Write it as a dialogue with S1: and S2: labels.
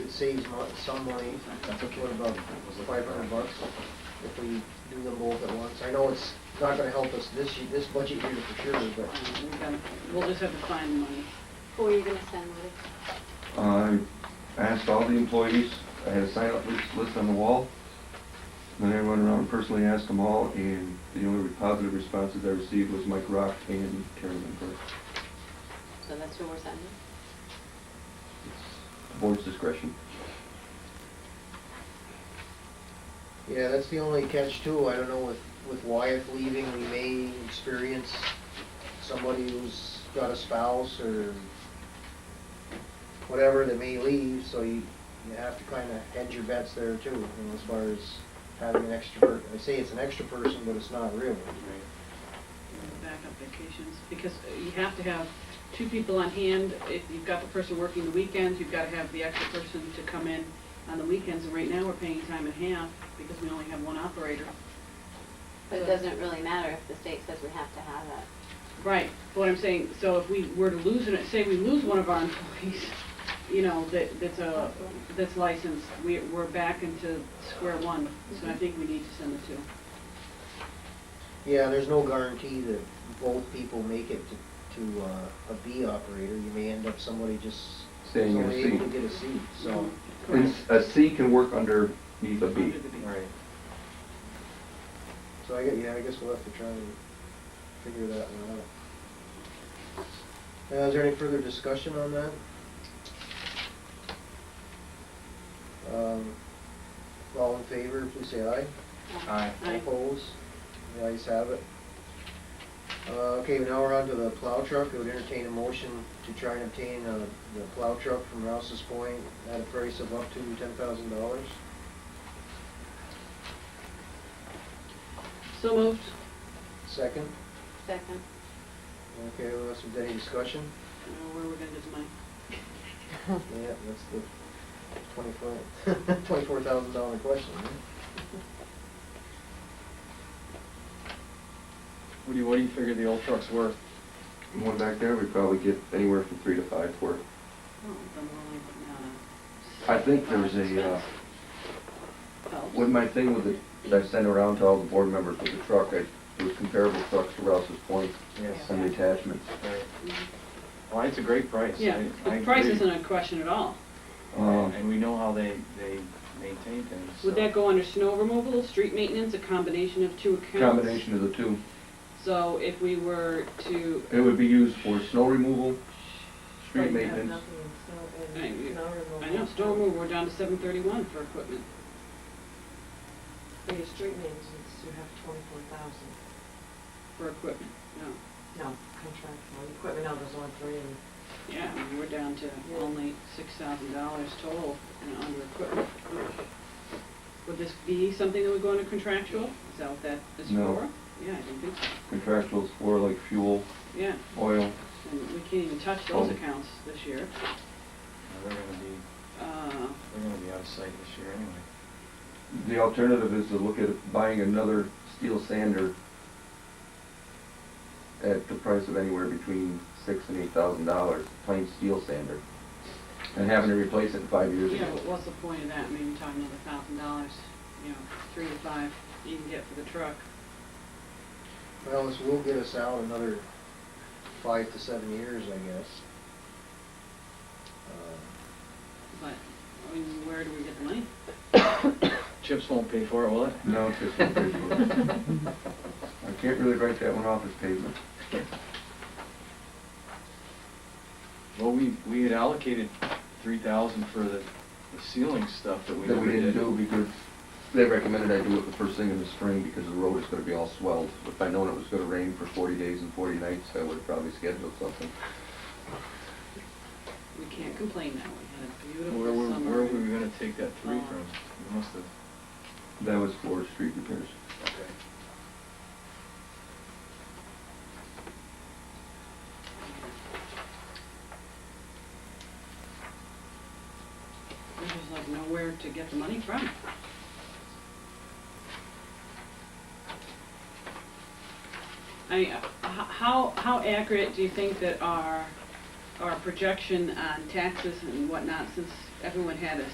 S1: saves mo- some money,
S2: That's okay.
S1: what about five hundred bucks if we do them both at once? I know it's not gonna help us this, ye- this budget year for sure, but
S3: Um, we gotta- We'll just have to find money.
S4: Who are you gonna send with?
S5: Uh, I asked all the employees, I had a sign-up list, list on the wall. Then I went around and personally asked them all, and the only positive responses I received was Mike Rock and Karen Lindberg.
S4: So that's who we're sending?
S5: It's the Board's discretion.
S1: yeah, that's the only catch too. I don't know with, with Wyatt leaving, we may experience somebody who's got a spouse or whatever that may leave, so you, you have to kinda hedge your bets there too, you know, as far as having an extra, per- I say it's an extra person, but it's not really.
S3: Backup vacations, because you have to have two people on hand. If you've got the person working the weekends, you've gotta have the extra person to come in on the weekends. And right now, we're paying time and half because we only have one operator.
S4: But it doesn't really matter if the state says we have to have it.
S3: Right, but what I'm saying, so if we were to lose, an- say we lose one of our employees, you know, that, that's a, that's licensed, we, we're back into square one. So
S4: Mm-hmm.
S3: I think we need to send the two.
S1: Yeah, there's no guarantee that both people make it to, to uh, a B operator. You may end up somebody just
S5: Staying in a
S1: only able to
S5: seat.
S1: get a seat, so.
S3: Mm-hmm.
S5: And uh,
S3: Correct.
S5: s- a C can work underneath a B.
S3: Under the B.
S1: Right. So I guess, yeah, I guess we'll have to try and figure that one out. Now, is there any further discussion on that? Um, All in favor, please say aye.
S2: Aye.
S3: Aye.
S1: Opposed? The ayes have it. Uh, Okay, now we're on to the plow truck. I would entertain a motion to try and obtain uh, the plow truck from Rouse's Point at a price of up to ten thousand dollars.
S3: So moved.
S1: Second?
S4: Second.
S1: Okay, well, that's, any discussion?
S3: Uh, Where are we gonna get the money?
S1: Yeah, that's the twenty-four, twenty-four thousand dollar question, huh?
S2: What do you, what do you figure the old truck's worth?
S5: One back there, we'd probably get anywhere from three to five for it.
S3: Oh, then we're only putting out
S5: I think there was a, uh,
S3: Phelps.
S5: When my thing was that I sent around to all the board members with the truck, I, it was comparable trucks to Rouse's Point,
S2: Yes.
S5: some attachments.
S2: Right. Uh, Well, it's a great price.
S3: Mm-hmm. Yeah,
S2: I- I
S3: the price
S2: agree. Uh,
S3: isn't a question at all.
S5: Um,
S2: And we know how they, they maintain things.
S3: Would
S2: so-
S3: that go under snow removal, street maintenance, a combination of two accounts?
S5: Combination of the two.
S3: So if we were to,
S5: It would be used for snow removal, street
S3: Right, yeah,
S5: maintenance.
S3: I I know, snow removal, we're down to seven thirty-one for equipment.
S6: For your street maintenance, you have twenty-four thousand.
S3: for equipment, no.
S6: No, contractual, equipment, no, there's only three in
S3: Yeah, I mean, we're down to only six thousand dollars total you know, under equipment. Would this be something that would go under contractual? Is that what that is for?
S5: No.
S3: Yeah, I don't think so.
S5: Contractuals for like fuel,
S3: Yeah,
S5: oil.
S3: and we can't even touch those
S5: Oh.
S3: accounts this year.
S2: They're gonna be,
S3: Uh,
S2: they're gonna be out of sight this year anyway.
S5: The alternative is to look at buying another steel sander at the price of anywhere between six and eight thousand dollars, plain steel sander, and having to replace it in five years
S3: Yeah,
S5: ago.
S3: but what's the point of that, I mean, you're talking another thousand dollars, you know, three to five you can get for the truck.
S1: Well, this will get us out another five to seven years, I guess. Uh,
S3: But, I mean, where do we get the money?
S2: Chips won't pay for it, will it?
S5: No, it's just one bridge road. I can't really write that one off as pavement.
S2: Well, we, we had allocated three thousand for the the ceiling stuff that we
S5: That
S2: never
S5: we didn't
S2: did.
S5: do because they recommended I do it the first thing in the spring because the road is gonna be all swelled. If I'd known it was gonna rain for forty days and forty nights, I would've probably scheduled something.
S3: We can't complain now, we had a
S2: Where were,
S3: beautiful summer.
S2: where were we gonna take that three
S3: Uh,
S2: from? We must have,
S5: That was for street repairs.
S2: okay.
S3: We just like know where to get the money from. I, mean, h- how, how accurate do you think that our, our projection on taxes and whatnot, since everyone had a